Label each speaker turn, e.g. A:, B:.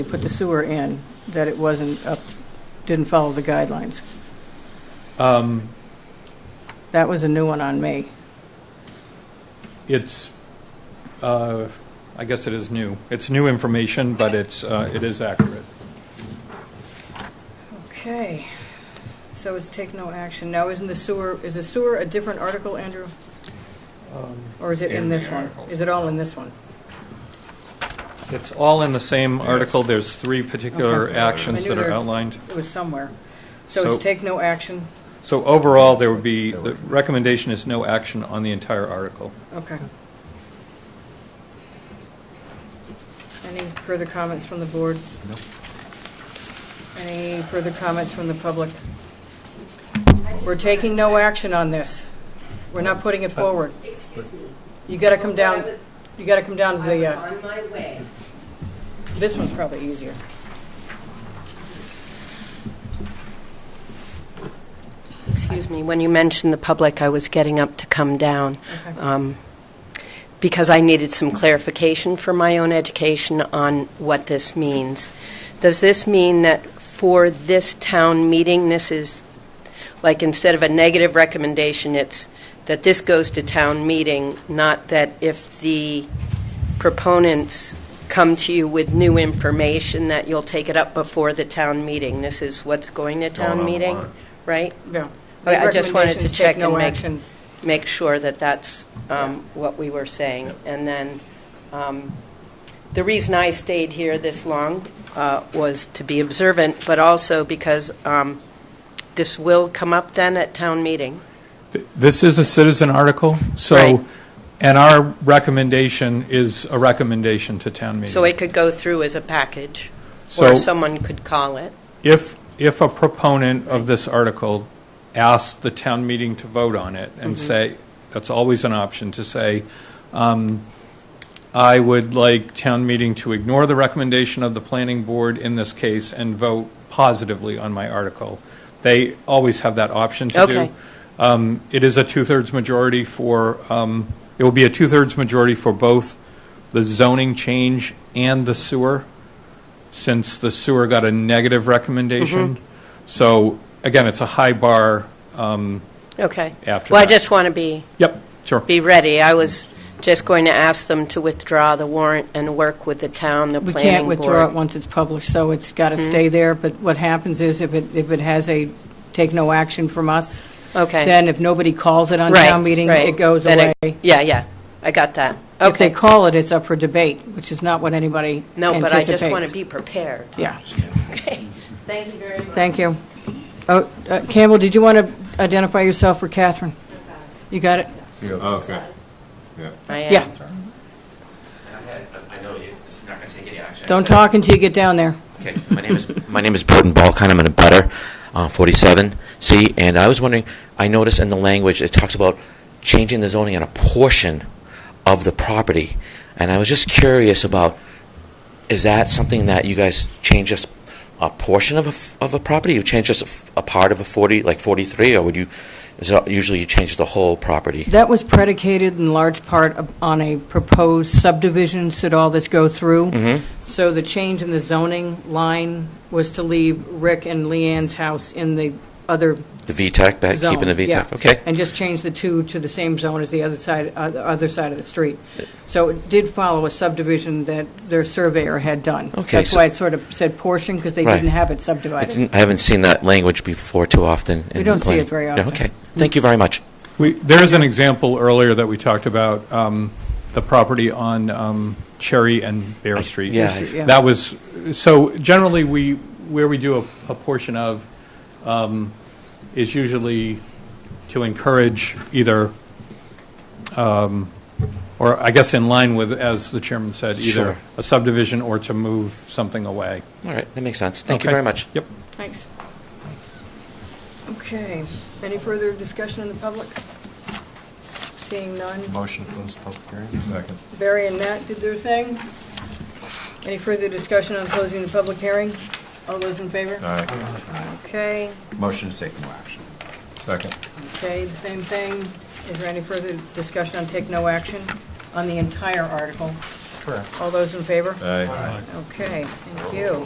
A: we put the sewer in, that it wasn't up, didn't follow the guidelines.
B: Um,
A: That was a new one on me.
B: It's, uh, I guess it is new. It's new information, but it's, uh, it is accurate.
A: Okay, so it's take no action. Now, isn't the sewer, is the sewer a different article, Andrew? Or is it in
C: In
A: this
C: the
A: one?
C: article.
A: Is it all in this one?
B: It's all in the same article. There's three particular
A: Okay. I
B: actions
A: knew
B: that are
A: there-
B: outlined.
A: It was somewhere. So
B: So-
A: it's take no action?
B: So overall, there would be, the recommendation is no action on the entire article.
A: Okay. Any further comments from the board?
B: No.
A: Any further comments from the public? We're taking no action on this. We're not putting it forward.
D: Excuse me.
A: You gotta come down,
D: Before
A: you gotta come down to
D: I was
A: the,
D: I
A: uh,
D: was on my way.
A: this one's probably easier.
D: Excuse me, when you mentioned the public, I was getting up to come down um, because I needed some clarification for my own education on what this means. Does this mean that for this town meeting, this is, like, instead of a negative recommendation, it's that this goes to town meeting, not that if the proponents come to you with new information, that you'll take it up before the town meeting? This is what's going to town meeting, right?
A: Yeah.
D: Okay, I just wanted to
A: Recommendations,
D: check
A: take no
D: and make-
A: action.
D: make sure that that's um, what we were saying. And then, um, the reason I stayed here this long uh, was to be observant, but also because um, this will come up then at town meeting.
B: This is a citizen article,
D: Right.
B: so, and our recommendation is a recommendation to town meeting.
D: So it could go through as a package,
B: So-
D: or someone could call it.
B: If, if a proponent of this article asks the town meeting to vote on it and say, that's always an option, to say, um, I would like town meeting to ignore the recommendation of the planning board in this case and vote positively on my article. They always have that option to do.
D: Okay.
B: Um, It is a two-thirds majority for, um, it will be a two-thirds majority for both the zoning change and the sewer, since the sewer got a negative recommendation.
D: Mm-hmm.
B: So, again, it's a high bar. um,
D: Okay.
B: After
D: Well, I
B: that.
D: just want to be,
B: Yep, sure.
D: be ready. I was just going to ask them to withdraw the warrant and work with the town, the
A: We
D: planning board. Hmm.
A: can't withdraw it once it's published, so it's gotta stay there, but what happens is if it, if it has a take no action from us,
D: Okay.
A: then if nobody calls it on
D: Right,
A: town meeting,
D: right.
A: it goes
D: Then
A: away.
D: it- Yeah, yeah, I got that.
A: If they
D: Okay.
A: call it, it's up for debate, which is not what anybody
D: No, but I just want to
A: anticipates.
D: be prepared.
A: Yeah,
D: Thank you very much.
A: thank you. Oh, uh, Campbell, did you want to identify yourself for Catherine? You got it?
E: Okay. Yeah.
D: I am.
A: Yeah,
F: I know you, this is not going to take any action.
A: don't talk until you get down there.
F: Okay, my name is, my name is Burton Balkan, I'm in a butter, 47C, and I was wondering, I noticed in the language, it talks about changing the zoning on a portion of the property, and I was just curious about, is that something that you guys change just a portion of a, f- of a property? You change just a f- a part of a 40, like 43, or would you, is it, usually you change the whole property?
A: That was predicated in large part of- on a proposed subdivision, should all this go through. So the change in the zoning line was to leave Rick and Leanne's house in the other
F: The VTEC, back,
A: zone.
F: keeping the
A: yeah.
F: VTEC? Okay.
A: And just change the two to the same zone as the other side, uh, the other side of the street. So it did follow a subdivision that their surveyor had done.
F: Okay,
A: That's
F: so-
A: why it sort of said portion, because they
F: Right.
A: didn't have it
F: I
A: subdivided.
F: didn't- I haven't seen that language before too often. in
A: We don't
F: the
A: see
F: plan.
A: it very
F: No,
A: often.
F: Okay, thank you very much.
B: We, there is an example earlier that we talked about, um, the property on um, Cherry and Bear Street.
F: yeah, I-
A: Yeah.
B: That was, so generally, we, where we do a, a portion of um, is usually to encourage either, um, or I guess in line with, as the chairman said, either
F: Sure.
B: a subdivision or to move something away.
F: All right, that makes sense. Thank you
B: Okay.
F: very much.
B: Yep.
A: Thanks. Okay, any further discussion in the public? Seeing none,
E: Motion to close the public hearing. Second.
A: Barry and Nat did their thing. Any further discussion on closing the public hearing? All those in
E: All
A: favor?
E: right.
A: Okay.
E: Motion to take no action. Second.
A: Okay, the same thing. Is there any further discussion on take no action on the entire article?
E: Correct.
A: All those in favor?
E: Aye. Uh,
A: Okay, thank you.